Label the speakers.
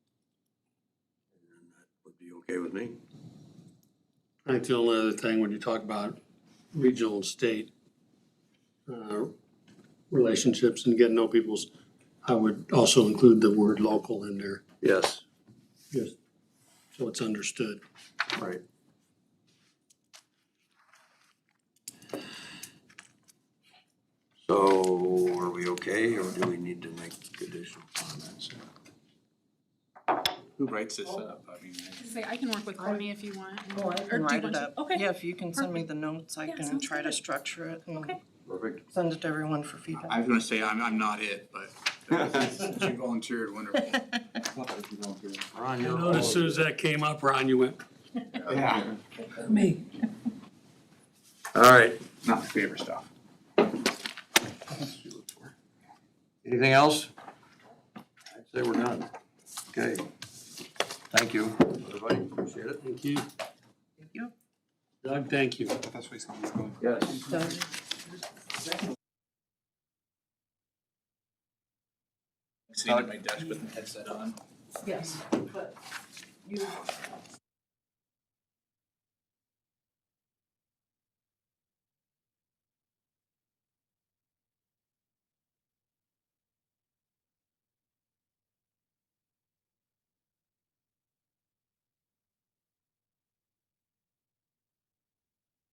Speaker 1: Okay with me?
Speaker 2: I think the only other thing, when you talk about regional and state uh, relationships and getting to know people's, I would also include the word local in there,
Speaker 1: Yes.
Speaker 2: just so it's understood.
Speaker 1: Right. So are we okay, or do we need to make additional comments?
Speaker 3: Who writes this up? I mean, I-
Speaker 4: Say, I can work with Courtney if you want. and-
Speaker 5: Oh, I
Speaker 4: or do
Speaker 5: can
Speaker 4: you
Speaker 5: write
Speaker 4: want
Speaker 5: it
Speaker 4: to-
Speaker 5: up.
Speaker 4: Okay,
Speaker 5: Yeah, if you can send me the notes, I
Speaker 4: Yeah,
Speaker 5: can
Speaker 4: sounds
Speaker 5: try to
Speaker 4: good.
Speaker 5: structure it and
Speaker 4: Okay.
Speaker 1: Perfect.
Speaker 5: send it to everyone for
Speaker 3: I
Speaker 5: feedback.
Speaker 3: was gonna say, I'm, I'm not it, but since you volunteered, wonderful.
Speaker 1: Ron,
Speaker 2: I
Speaker 1: you're.
Speaker 2: noticed as soon as that came up, Ron, you went,
Speaker 3: Yeah,
Speaker 5: Me.
Speaker 1: All right,
Speaker 3: not my favorite stuff.
Speaker 1: anything else? I'd say we're done. Okay. Thank you, everybody, appreciate it.
Speaker 2: thank you.
Speaker 5: you.
Speaker 2: Doug, thank you.
Speaker 3: That's where something's going.
Speaker 1: Yes.
Speaker 5: Done.
Speaker 3: Sitting at my desk with my headset on.
Speaker 5: Yes, but you